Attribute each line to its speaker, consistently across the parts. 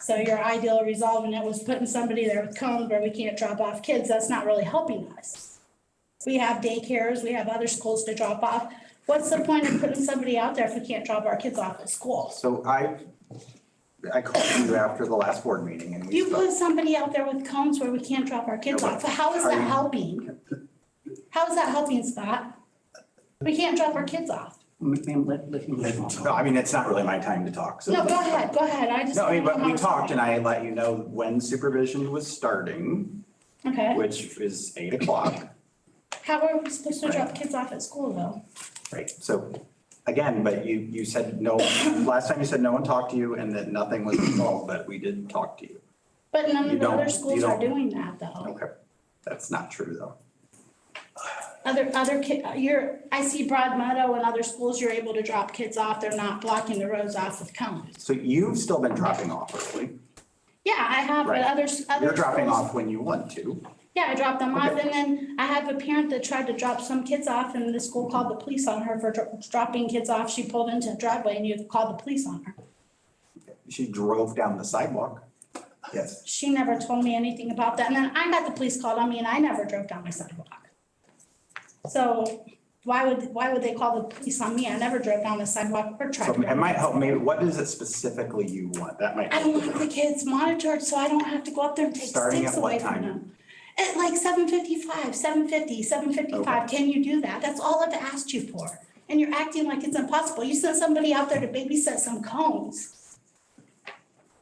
Speaker 1: So your ideal resolve, and it was putting somebody there with cones where we can't drop off kids, that's not really helping us. We have daycares, we have other schools to drop off. What's the point of putting somebody out there if we can't drop our kids off at school?
Speaker 2: So I, I called you after the last board meeting and we.
Speaker 1: You
Speaker 2: spoke.
Speaker 1: put somebody out there with cones where we can't drop our kids off, how is that helping? How is that helping, Scott? We can't drop our kids off.
Speaker 3: Ma'am, let, let him let him talk.
Speaker 2: No, I mean, it's not really my time to talk, so.
Speaker 1: No, go ahead, go ahead, I just.
Speaker 2: No, I mean, but we talked and I let you know when supervision was starting,
Speaker 1: Okay,
Speaker 2: which is eight o'clock.
Speaker 1: how are we supposed to drop kids off at school though?
Speaker 2: Right, so again, but you, you said no, last time you said no one talked to you and that nothing was involved, but we did talk to you.
Speaker 1: But none of
Speaker 2: You
Speaker 1: the
Speaker 2: don't-
Speaker 1: other
Speaker 2: you
Speaker 1: schools are
Speaker 2: don't.
Speaker 1: doing that though.
Speaker 2: Okay, that's not true though.
Speaker 1: Other, other ki, you're, I see Broad Meadow and other schools, you're able to drop kids off, they're not blocking the roads off with cones.
Speaker 2: So you've still been dropping off early.
Speaker 1: Yeah, I have, but
Speaker 2: Right.
Speaker 1: others, other.
Speaker 2: You're dropping
Speaker 1: schools-
Speaker 2: off when you want to.
Speaker 1: Yeah, I dropped them off
Speaker 2: Okay.
Speaker 1: and then I have a parent that tried to drop some kids off and the school called the police on her for dro- dropping kids off. She pulled into the driveway and you called the police on her.
Speaker 2: She drove down the sidewalk. Yes.
Speaker 1: She never told me anything about that. And then I got the police called on me and I never drove down my sidewalk. So why would, why would they call the police on me? I never drove down the sidewalk or tried.
Speaker 2: So
Speaker 1: to
Speaker 2: it
Speaker 1: drive.
Speaker 2: might help, maybe, what is it specifically you want? That might.
Speaker 1: I want the kids monitored so I don't have to go up there and take
Speaker 2: Starting
Speaker 1: sticks
Speaker 2: at what
Speaker 1: away from
Speaker 2: time?
Speaker 1: them. At like seven fifty-five, seven fifty, seven fifty-five, can you do that? That's all I've asked you for. And you're acting like it's impossible. You sent somebody out there to babysit some cones.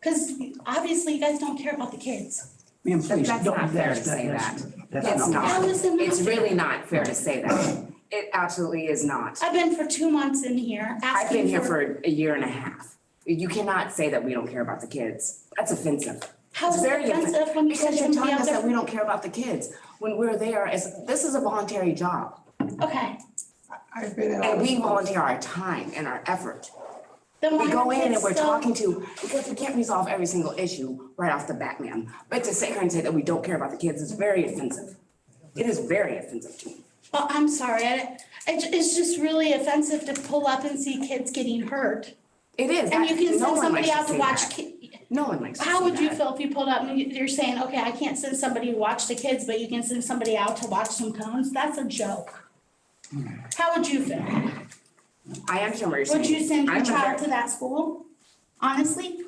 Speaker 1: Cause obviously you guys don't care about the kids.
Speaker 3: Ma'am, please,
Speaker 4: That's
Speaker 3: don't.
Speaker 4: not fair to
Speaker 3: that's-
Speaker 4: say
Speaker 3: that's- That's
Speaker 4: It's
Speaker 3: not.
Speaker 4: not.
Speaker 1: How is it not
Speaker 4: It's
Speaker 1: fair?
Speaker 4: really not fair to say that. It absolutely is not.
Speaker 1: I've been for two months in here asking
Speaker 4: I've been here for a year and a half. You cannot say that we don't care about the kids. That's offensive.
Speaker 1: How is
Speaker 4: It's
Speaker 1: it
Speaker 4: very
Speaker 1: offensive when you
Speaker 4: Because
Speaker 1: sent
Speaker 4: you're
Speaker 1: somebody
Speaker 4: telling
Speaker 1: out
Speaker 4: us that
Speaker 1: there?
Speaker 4: we don't care about the kids when we're there as, this is a voluntary job.
Speaker 1: Okay,
Speaker 2: I've been at all
Speaker 4: And
Speaker 2: the
Speaker 4: we
Speaker 2: schools.
Speaker 4: volunteer our time and our effort.
Speaker 1: then why
Speaker 4: We go
Speaker 1: are
Speaker 4: in
Speaker 1: kids
Speaker 4: and we're
Speaker 1: still-
Speaker 4: talking to, because we can't resolve every single issue right off the bat, ma'am. But to sit here and say that we don't care about the kids is very offensive. It is very offensive to me.
Speaker 1: Well, Oh, I'm sorry, I, I ju- it's just really offensive to pull up and see kids getting hurt.
Speaker 4: It is.
Speaker 1: And you
Speaker 4: That-
Speaker 1: can
Speaker 4: no
Speaker 1: send
Speaker 4: one likes
Speaker 1: somebody out to
Speaker 4: see
Speaker 1: watch
Speaker 4: that.
Speaker 1: ki-
Speaker 4: No one likes to
Speaker 1: How
Speaker 4: see
Speaker 1: would you
Speaker 4: that.
Speaker 1: feel if you pulled up and you- you're saying, okay, I can't send somebody to watch the kids, but you can send somebody out to watch some cones? That's a joke. How would you feel?
Speaker 4: I understand what you're saying.
Speaker 1: Would you send
Speaker 4: I'm
Speaker 1: your
Speaker 4: a
Speaker 1: child
Speaker 4: ver-
Speaker 1: to that school? Honestly,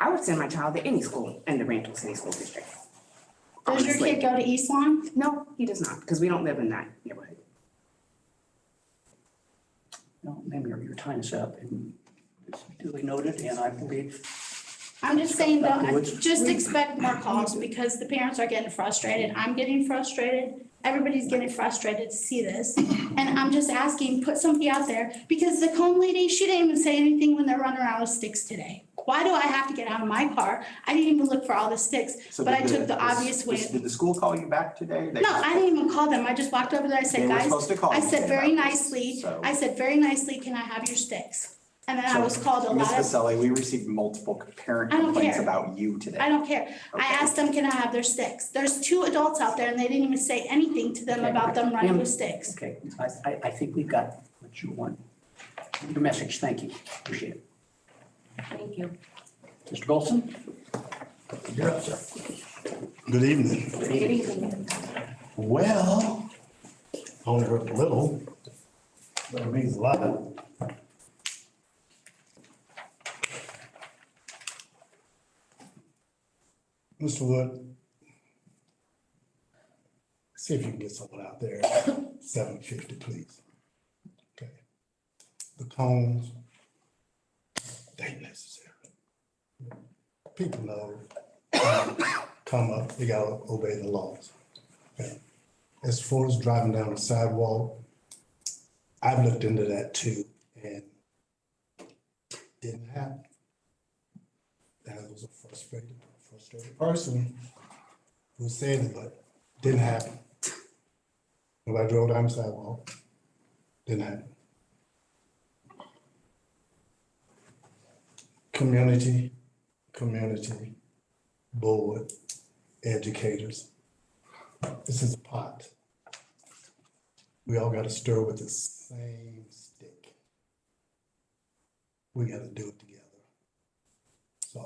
Speaker 4: I would send my child to any school in the Randall City School District.
Speaker 1: does your
Speaker 4: Honestly.
Speaker 1: kid go to East Lawn?
Speaker 4: No, he does not, because we don't live in that neighborhood.
Speaker 3: No, ma'am, your, your time is up and it's duly noted and I believe,
Speaker 1: I'm just saying, though,
Speaker 3: Afterwards.
Speaker 1: just expect more calls because the parents are getting frustrated. I'm getting frustrated. Everybody's getting frustrated to see this. And I'm just asking, put somebody out there because the cone lady, she didn't even say anything when they're running around with sticks today. Why do I have to get out of my car? I didn't even look for all the sticks,
Speaker 2: So
Speaker 1: but I
Speaker 2: did
Speaker 1: took the
Speaker 2: is-
Speaker 1: obvious
Speaker 2: is-
Speaker 1: way.
Speaker 2: Did the school call you back today? They-
Speaker 1: No, I didn't even call them. I just walked over there. I
Speaker 2: They
Speaker 1: said,
Speaker 2: were
Speaker 1: guys,
Speaker 2: supposed to call
Speaker 1: I
Speaker 2: you
Speaker 1: said
Speaker 2: today
Speaker 1: very
Speaker 2: about this,
Speaker 1: nicely,
Speaker 2: so-
Speaker 1: I said very nicely, can I have your sticks? And then I
Speaker 2: So,
Speaker 1: was called a
Speaker 2: Ms.
Speaker 1: lot of
Speaker 2: Vasselli, we received multiple parent
Speaker 1: I don't
Speaker 2: complaints
Speaker 1: care.
Speaker 2: about you today.
Speaker 1: I don't care. I
Speaker 2: Okay.
Speaker 1: asked them, can I have their sticks? There's two adults out there and they didn't even say anything to them about them running with sticks.
Speaker 3: okay, I, I, I think we've got what you want. Your message, thank you, appreciate it.
Speaker 4: Thank you.
Speaker 3: Mr. Golson?
Speaker 5: Good evening.
Speaker 3: Good evening.
Speaker 5: Well, only hurt a little, but it means a lot. Mr. Wood, see if you can get someone out there, seven fifty, please. Okay. The cones, they necessary. People know, come up, they gotta obey the laws. Okay. As far as driving down the sidewalk, I've looked into that too and didn't happen. That was a frustrated, frustrated person who said it, but didn't happen. When I drove down the sidewalk, didn't happen. Community, community, board, educators, this is a pot. We all gotta stir with the same stick. We gotta do it together.